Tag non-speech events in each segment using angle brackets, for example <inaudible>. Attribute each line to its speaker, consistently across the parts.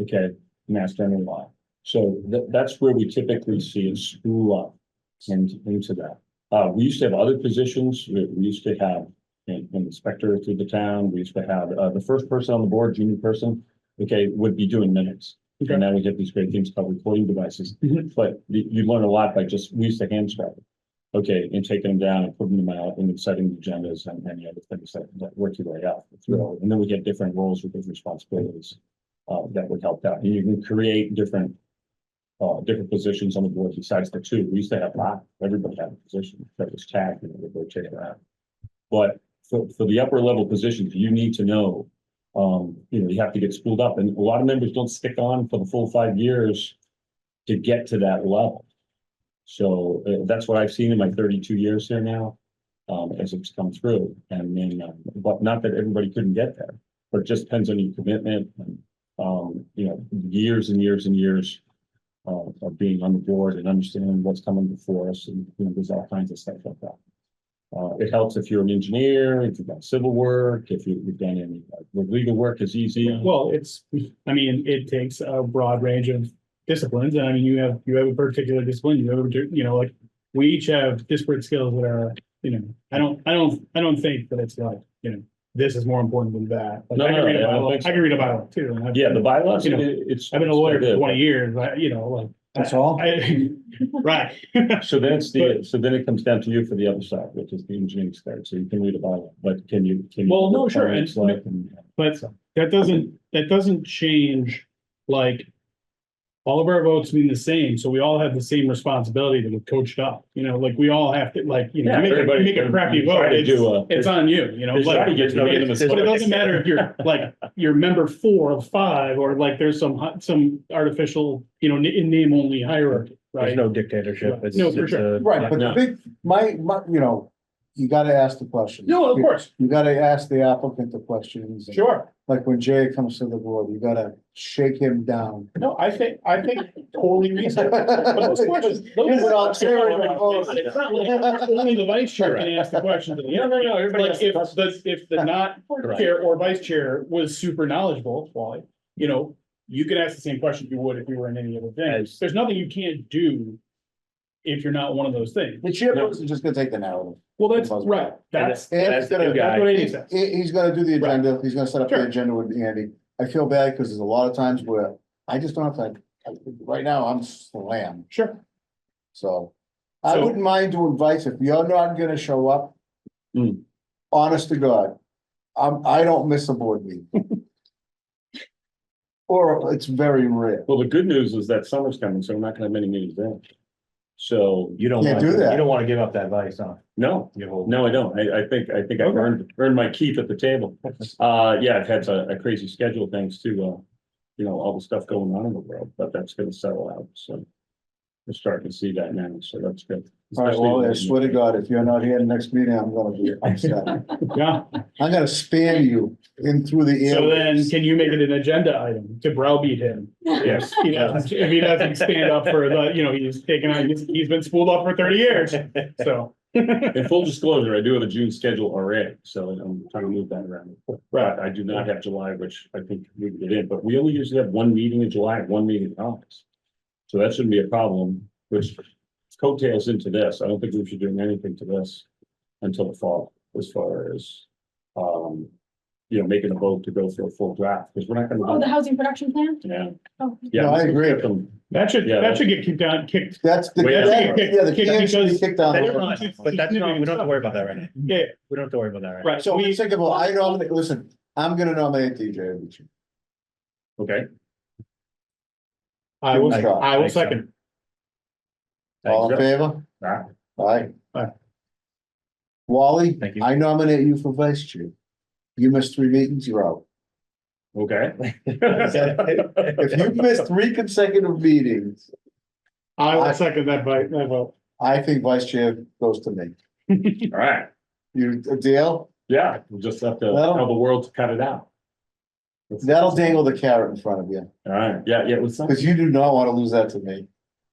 Speaker 1: okay, mass general law. So that, that's where we typically see it screw up and into that. Uh, we used to have other positions, we, we used to have an an inspector through the town, we used to have, uh, the first person on the board, junior person, okay, would be doing minutes.
Speaker 2: Okay.
Speaker 1: And now we get these great things called recording devices,
Speaker 2: Mhm.
Speaker 1: but you, you learn a lot by just, we used to hand scribe. Okay, and taking them down and putting them out and then setting agendas and any other things that, that work your way out. through. And then we get different roles with different responsibilities, uh, that would help out. And you can create different uh, different positions on the board besides the two. We used to have five, everybody had a position that was tagged and would rotate around. But for, for the upper level positions, you need to know, um, you know, you have to get schooled up and a lot of members don't stick on for the full five years to get to that level. So uh, that's what I've seen in my thirty-two years here now, um, as it's come through and then, uh, but not that everybody couldn't get there. But it just depends on your commitment and, um, you know, years and years and years uh, of being on the board and understanding what's coming before us and, you know, there's all kinds of stuff like that. Uh, it helps if you're an engineer, if you've done civil work, if you- you've done any, uh, legal work is easy.
Speaker 2: Well, it's, I mean, it takes a broad range of disciplines, and I mean, you have, you have a particular discipline, you have, a partic- you know, like. We each have disparate skills that are, you know, I don't, I don't, I don't think that it's like, you know, this is more important than that. Like,
Speaker 1: No,
Speaker 2: I
Speaker 1: no,
Speaker 2: can read a
Speaker 1: I don't
Speaker 2: bylaw-
Speaker 1: think so.
Speaker 2: I can read a bylaw too. and I've-
Speaker 1: Yeah, the bylaws,
Speaker 2: You
Speaker 1: it-
Speaker 2: know,
Speaker 1: it's.
Speaker 2: I've been a lawyer for
Speaker 1: it's-
Speaker 2: twenty years, I, you know, like.
Speaker 3: That's all?
Speaker 2: I, <laughs> right.
Speaker 1: So then it's the, so then it comes down to you for the other side, which is the engineering side. So you can read a bylaw, but can you? can you-
Speaker 2: Well, no, sure, and-
Speaker 1: It's like, and-
Speaker 2: But that doesn't, that doesn't change, like. All of our votes mean the same, so we all have the same responsibility to get coached up, you know, like we all have to, like, you know,
Speaker 1: Yeah,
Speaker 2: you make a,
Speaker 1: everybody-
Speaker 2: you make a crappy
Speaker 1: you try
Speaker 2: vote,
Speaker 1: to do
Speaker 2: it's,
Speaker 1: a-
Speaker 2: it's on you, you know.
Speaker 1: It's
Speaker 2: like-
Speaker 1: trying to get to the end of the
Speaker 2: But it
Speaker 1: story.
Speaker 2: doesn't matter if you're like, you're member four of five, or like there's some, hi- some artificial, you know, in name only hierarchy,
Speaker 4: There's
Speaker 2: right?
Speaker 4: no dictatorship. It's-
Speaker 2: No, for
Speaker 4: it's
Speaker 2: sure.
Speaker 4: a-
Speaker 3: Right, but the
Speaker 1: No.
Speaker 3: big, my, my, you know, you gotta ask the question.
Speaker 2: No, of course,
Speaker 3: You gotta ask the applicant the questions.
Speaker 2: sure.
Speaker 3: Like when Jay comes to the board, you gotta shake him down.
Speaker 2: No, I think, I think totally reasonable. But
Speaker 3: <laughs>
Speaker 2: those questions- those
Speaker 3: Is it all
Speaker 2: questions are
Speaker 3: chairman
Speaker 2: not-
Speaker 3: or
Speaker 2: it's- it's not like Only the vice chair can ask the question. No, no, no,
Speaker 1: everybody
Speaker 2: Like
Speaker 1: asks the
Speaker 2: if the, if the not
Speaker 1: Correct.
Speaker 2: chair or vice chair was super knowledgeable, Wally, you know, you could ask the same question you would if you were in any other thing.
Speaker 4: Yes.
Speaker 2: There's nothing you can't do if you're not one of those things.
Speaker 3: The chairperson's just gonna take the narrative.
Speaker 2: Well, that's right. That's,
Speaker 3: And
Speaker 4: That's
Speaker 3: it's
Speaker 4: the
Speaker 3: gonna-
Speaker 4: guy.
Speaker 2: that's what it
Speaker 3: He,
Speaker 2: is.
Speaker 3: he's gonna do the
Speaker 2: Right.
Speaker 3: agenda, he's gonna set up the
Speaker 2: Sure.
Speaker 3: agenda with Andy. I feel bad because there's a lot of times where I just don't have time. I- Right now, I'm slammed,
Speaker 2: Sure.
Speaker 3: so. I
Speaker 2: So-
Speaker 3: wouldn't mind doing vice if you're not gonna show up.
Speaker 1: Hmm.
Speaker 3: Honest to God, I'm, I don't miss a board meeting.
Speaker 2: <laughs>
Speaker 3: Or it's very rare.
Speaker 1: Well, the good news is that summer's coming, so we're not gonna have many meetings then. So,
Speaker 4: You don't
Speaker 3: Can't
Speaker 4: want,
Speaker 3: do that.
Speaker 4: you don't want to give up that vice, huh?
Speaker 1: no,
Speaker 4: You hold-
Speaker 1: No, I don't. I, I think, I think I've
Speaker 4: Okay.
Speaker 1: earned, earned my keep at
Speaker 4: <laughs>
Speaker 1: the table. Uh, yeah, I've had a, a crazy schedule thanks to, uh, you know, all the stuff going on in the world, but that's gonna settle out, so. We're starting to see that now, so that's good.
Speaker 3: All right, well, I swear to God, if you're not here next meeting, I'm gonna be
Speaker 2: <laughs>
Speaker 3: upset.
Speaker 2: Yeah.
Speaker 3: I'm gonna spam you in through the air.
Speaker 2: So then can you make it an agenda item to browbeat him?
Speaker 1: Yes.
Speaker 2: <laughs> You know, if he doesn't stand up for the, you know, he's taken on, he's, he's been spooled up for thirty years, so.
Speaker 1: In full disclosure, I do have a June schedule already, so I'm trying to move that around. But I do not have July, which I think we can get in, but we only usually have one meeting in July, and one meeting in August. So that shouldn't be a problem, which coattails into this. I don't think we should do anything to this until the fall, as far as, um, you know, making a vote to go for a full draft, because we're not
Speaker 5: Oh, the
Speaker 1: gonna.
Speaker 5: housing production plan?
Speaker 1: Yeah.
Speaker 5: Oh.
Speaker 1: Yeah,
Speaker 3: No, I agree.
Speaker 2: That should,
Speaker 1: Yeah.
Speaker 2: that should get kicked down, kicked,
Speaker 3: That's the,
Speaker 1: Wait,
Speaker 3: yeah, the
Speaker 2: kick-
Speaker 3: can should be
Speaker 2: because-
Speaker 3: kicked down.
Speaker 4: That's not- But that's not, we don't have to worry about that right now.
Speaker 2: yeah,
Speaker 4: We don't have to worry about that right now.
Speaker 2: right,
Speaker 3: So
Speaker 2: so
Speaker 3: we
Speaker 2: we,
Speaker 3: think about, I nominate, listen, I'm gonna nominate DJ Avicii.
Speaker 1: Okay,
Speaker 2: I will,
Speaker 3: Give it a shot.
Speaker 2: I will second.
Speaker 3: All in
Speaker 1: Thanks,
Speaker 3: favor?
Speaker 1: Aye.
Speaker 3: Aye.
Speaker 2: Aye.
Speaker 3: Wally,
Speaker 4: Thank you.
Speaker 3: I nominate you for vice chair. You missed three meetings, you're out.
Speaker 1: okay.
Speaker 3: <laughs> If you miss three consecutive meetings,
Speaker 2: I
Speaker 3: I-
Speaker 2: will second that by, that vote.
Speaker 3: I think vice chair goes to me.
Speaker 1: <laughs> All right,
Speaker 3: You, uh, Dale,
Speaker 1: yeah, we'll just have to
Speaker 3: Well-
Speaker 1: tell the world to cut it out.
Speaker 3: that'll dangle the carrot in front of you,
Speaker 1: All right, yeah, yeah, it was
Speaker 3: <laughs>
Speaker 1: something.
Speaker 3: because you do not want to lose that to me.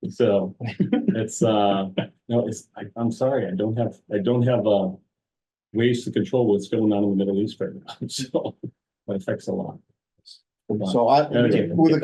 Speaker 1: So it's, uh, no, it's, I, I'm sorry, I don't have, I don't have, uh, ways to control what's going <laughs> on in the Middle East right now. So that affects a lot.
Speaker 3: So I,
Speaker 1: Anyway.
Speaker 3: with a